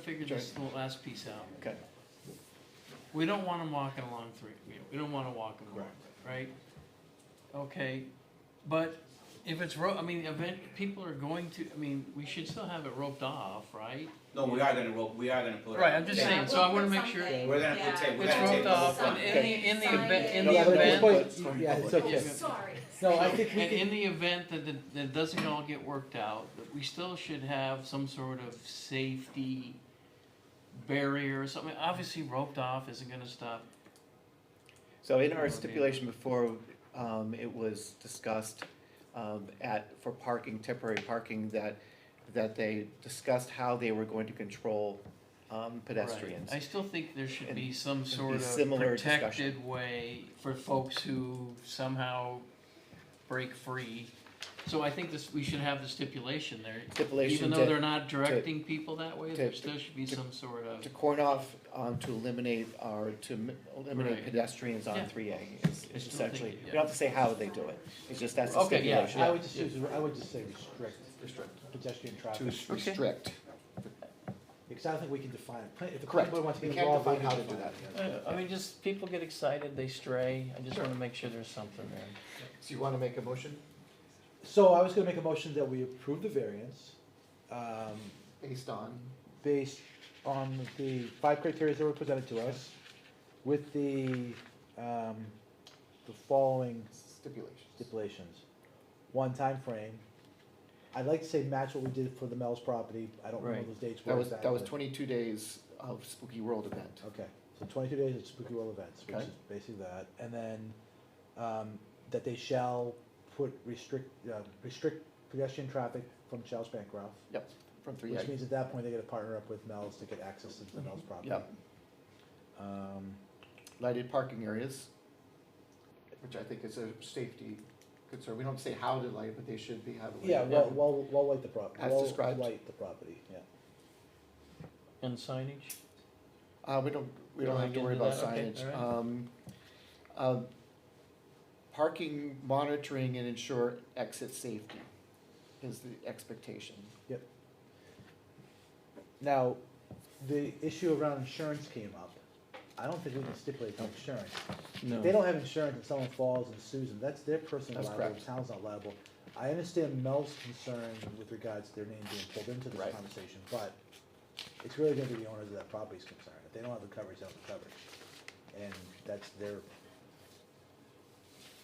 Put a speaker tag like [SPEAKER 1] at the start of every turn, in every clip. [SPEAKER 1] figure this little last piece out.
[SPEAKER 2] Okay.
[SPEAKER 1] We don't want them walking along three, we- we don't wanna walk them along, right? Okay, but if it's ro, I mean, event, people are going to, I mean, we should still have it roped off, right?
[SPEAKER 3] No, we are gonna roll, we are gonna put.
[SPEAKER 1] Right, I'm just
[SPEAKER 3] Yeah.
[SPEAKER 1] saying, so I wanna make sure
[SPEAKER 4] Yeah,
[SPEAKER 3] We're
[SPEAKER 4] we'll
[SPEAKER 3] gonna
[SPEAKER 4] put
[SPEAKER 3] put tape,
[SPEAKER 4] something.
[SPEAKER 3] we're
[SPEAKER 1] it's
[SPEAKER 3] gonna tape
[SPEAKER 1] roped
[SPEAKER 3] the whole
[SPEAKER 1] off,
[SPEAKER 3] thing.
[SPEAKER 1] and in the, in the event, in
[SPEAKER 4] No,
[SPEAKER 1] the
[SPEAKER 4] but it's
[SPEAKER 1] event.
[SPEAKER 4] point-
[SPEAKER 2] yeah, it's
[SPEAKER 4] Oh,
[SPEAKER 2] okay.
[SPEAKER 4] sorry.
[SPEAKER 5] No, I think we
[SPEAKER 1] And in
[SPEAKER 5] can,
[SPEAKER 1] the event that, it- that it doesn't all get worked out, that we still should have some sort of safety barrier or something. Obviously roped off isn't gonna stop.
[SPEAKER 2] So in our stipulation before, um, it was discussed, um, at, for parking, temporary parking, that, that they discussed how they were going to control, um, pedestrians.
[SPEAKER 1] I still think there should be some
[SPEAKER 2] be
[SPEAKER 1] sort of
[SPEAKER 2] similar discussion.
[SPEAKER 1] protected way for folks who somehow break free. So I think this, we should have the stipulation there. Even
[SPEAKER 2] Stipulation
[SPEAKER 1] though
[SPEAKER 2] to,
[SPEAKER 1] they're not directing people that way,
[SPEAKER 2] to-
[SPEAKER 1] there still should be
[SPEAKER 2] to-
[SPEAKER 1] some sort
[SPEAKER 2] to
[SPEAKER 1] of,
[SPEAKER 2] corn off, um, to eliminate, or to m- eliminate
[SPEAKER 1] Right.
[SPEAKER 2] pedestrians
[SPEAKER 1] Yeah.
[SPEAKER 2] on three A, is
[SPEAKER 1] I still
[SPEAKER 2] is
[SPEAKER 1] think
[SPEAKER 2] essentially,
[SPEAKER 1] it-
[SPEAKER 2] we don't have to say how they do it, it's just that's the
[SPEAKER 1] Okay, yeah,
[SPEAKER 2] stipulation.
[SPEAKER 5] I would just use, I would just say restrict. Restrict. Pedestrian
[SPEAKER 6] To
[SPEAKER 5] traffic,
[SPEAKER 6] s-
[SPEAKER 1] Okay.
[SPEAKER 6] restrict.
[SPEAKER 5] because I don't think we can define it. Pla- If the
[SPEAKER 6] Correct.
[SPEAKER 5] planning board wants to
[SPEAKER 6] We
[SPEAKER 5] get
[SPEAKER 6] can't
[SPEAKER 5] involved, we
[SPEAKER 6] define
[SPEAKER 5] can
[SPEAKER 6] how to do
[SPEAKER 5] define
[SPEAKER 6] that.
[SPEAKER 5] it.
[SPEAKER 1] Uh, I mean, just people get excited, they stray. I just wanna make sure there's something there.
[SPEAKER 6] So you want to make a motion
[SPEAKER 5] So I was gonna make a motion that we approve the variance, um,
[SPEAKER 6] based on?
[SPEAKER 5] based on the five criteria that were presented to us, with the, um, the following
[SPEAKER 6] Stipulations.
[SPEAKER 5] stipulations. One time frame. I'd like to say match what we did for the Mel's property, I don't remember
[SPEAKER 1] Right.
[SPEAKER 5] those dates.
[SPEAKER 6] That
[SPEAKER 5] where
[SPEAKER 6] was, that was
[SPEAKER 5] exactly.
[SPEAKER 6] twenty-two days of Spooky World event.
[SPEAKER 5] Okay, so twenty-two days at Spooky World events, which
[SPEAKER 6] Okay.
[SPEAKER 5] is basically that, and then, um, that they shall put restrict, uh, restrict pedestrian traffic from Charles Bancroft,
[SPEAKER 6] Yep, from three
[SPEAKER 5] which
[SPEAKER 6] A.
[SPEAKER 5] means at that point, they gotta partner up with Mel's to get access to the Mel's property.
[SPEAKER 6] Yep.
[SPEAKER 5] Um,
[SPEAKER 6] Lighted parking areas, which I think is a safety concern. We don't say how to light, but they should be how to light.
[SPEAKER 5] yeah, well, well, well, light the prop,
[SPEAKER 6] As
[SPEAKER 5] well,
[SPEAKER 6] described.
[SPEAKER 5] light the property, yeah.
[SPEAKER 1] And signage?
[SPEAKER 6] Uh, we don't, we don't
[SPEAKER 1] Don't
[SPEAKER 6] have to
[SPEAKER 1] get
[SPEAKER 6] worry
[SPEAKER 1] into
[SPEAKER 6] about
[SPEAKER 1] that? Okay,
[SPEAKER 6] signage.
[SPEAKER 1] all right.
[SPEAKER 6] Um, um, Parking, monitoring, and ensure exit safety is the expectation.
[SPEAKER 5] Now, the issue around insurance came up, I don't think we can stipulate the insurance, If They don't have insurance and someone falls and sues them, that's their personal
[SPEAKER 6] That's
[SPEAKER 5] liability,
[SPEAKER 6] correct.
[SPEAKER 5] the town's not liable. I understand Mel's concern with regards to their name being pulled into this
[SPEAKER 6] Right.
[SPEAKER 5] conversation, but it's really gonna be the owners of that property's concern. If they don't have the coverage, they don't have the coverage. And that's their.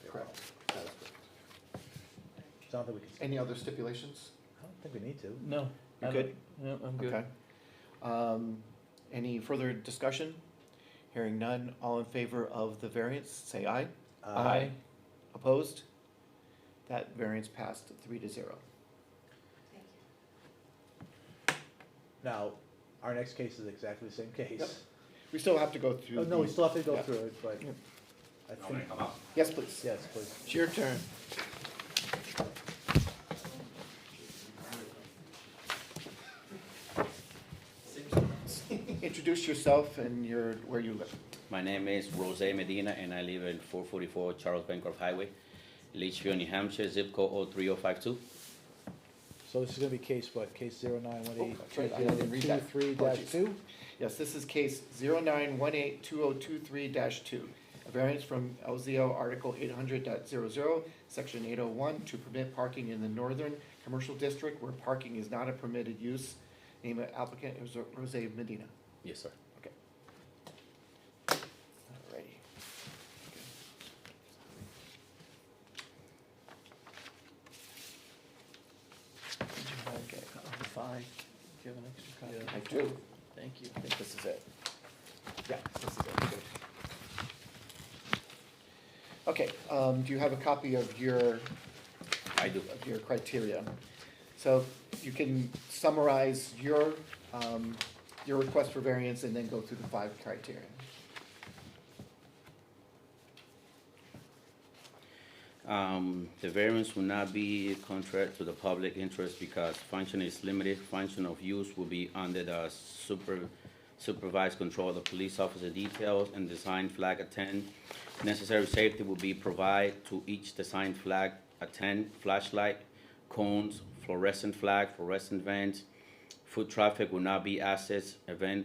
[SPEAKER 5] their
[SPEAKER 6] Correct.
[SPEAKER 5] problem. So I don't think we can,
[SPEAKER 6] Any other stipulations?
[SPEAKER 5] I don't think we need to.
[SPEAKER 1] No.
[SPEAKER 2] You
[SPEAKER 1] I
[SPEAKER 2] good?
[SPEAKER 1] don't- No, I'm good.
[SPEAKER 2] Okay. Um, any further discussion? Hearing none, all in favor of the variance, say aye.
[SPEAKER 5] Uh,
[SPEAKER 2] Aye. Opposed? That variance passed three to zero.
[SPEAKER 4] Thank you.
[SPEAKER 5] Now, our next case is exactly the same
[SPEAKER 6] Yep.
[SPEAKER 5] case.
[SPEAKER 6] We still have to go through.
[SPEAKER 5] Oh, no, we
[SPEAKER 6] the-
[SPEAKER 5] still have to go
[SPEAKER 6] Yeah.
[SPEAKER 5] through it, but
[SPEAKER 2] Yep.
[SPEAKER 5] I
[SPEAKER 3] I'm gonna
[SPEAKER 5] think,
[SPEAKER 3] come up.
[SPEAKER 6] Yes, please.
[SPEAKER 5] yes, please.
[SPEAKER 2] It's your turn. Introduce yourself and your, where you live.
[SPEAKER 7] My name is Rose Medina, and I live in 444 Charles Bancroft Highway, Litchfield, New Hampshire, zip code 03052.
[SPEAKER 5] So this is gonna be case what, case zero nine one eight,
[SPEAKER 6] Oh,
[SPEAKER 5] two
[SPEAKER 6] right, I didn't read that.
[SPEAKER 5] three dash
[SPEAKER 6] Apologies.
[SPEAKER 5] two?
[SPEAKER 2] Yes, this is case 918 2023 two, a variance from LZO Article 800.00, section eight oh one, to permit parking in the northern commercial district where parking is not a permitted use. Name of applicant is Rose Medina.
[SPEAKER 7] Yes, sir.
[SPEAKER 2] Alrighty.
[SPEAKER 1] Okay, of the five, do you have an extra copy?
[SPEAKER 2] I do,
[SPEAKER 1] Thank you.
[SPEAKER 2] I think this is it. Yeah, this is it, good. Okay, um, do you have a copy of your
[SPEAKER 7] I do.
[SPEAKER 2] of your criteria. So you can summarize your, um, your request for variance and then go through the five criteria.
[SPEAKER 7] Um, The variance will not be contrary to the public interest because function is limited. Function of use will be under the super- supervised control of the police officer details and design flag attend. Necessary safety will be provided to each design flag attend, flashlight, cones, fluorescent flag, fluorescent vans, Foot traffic will not be accessed, event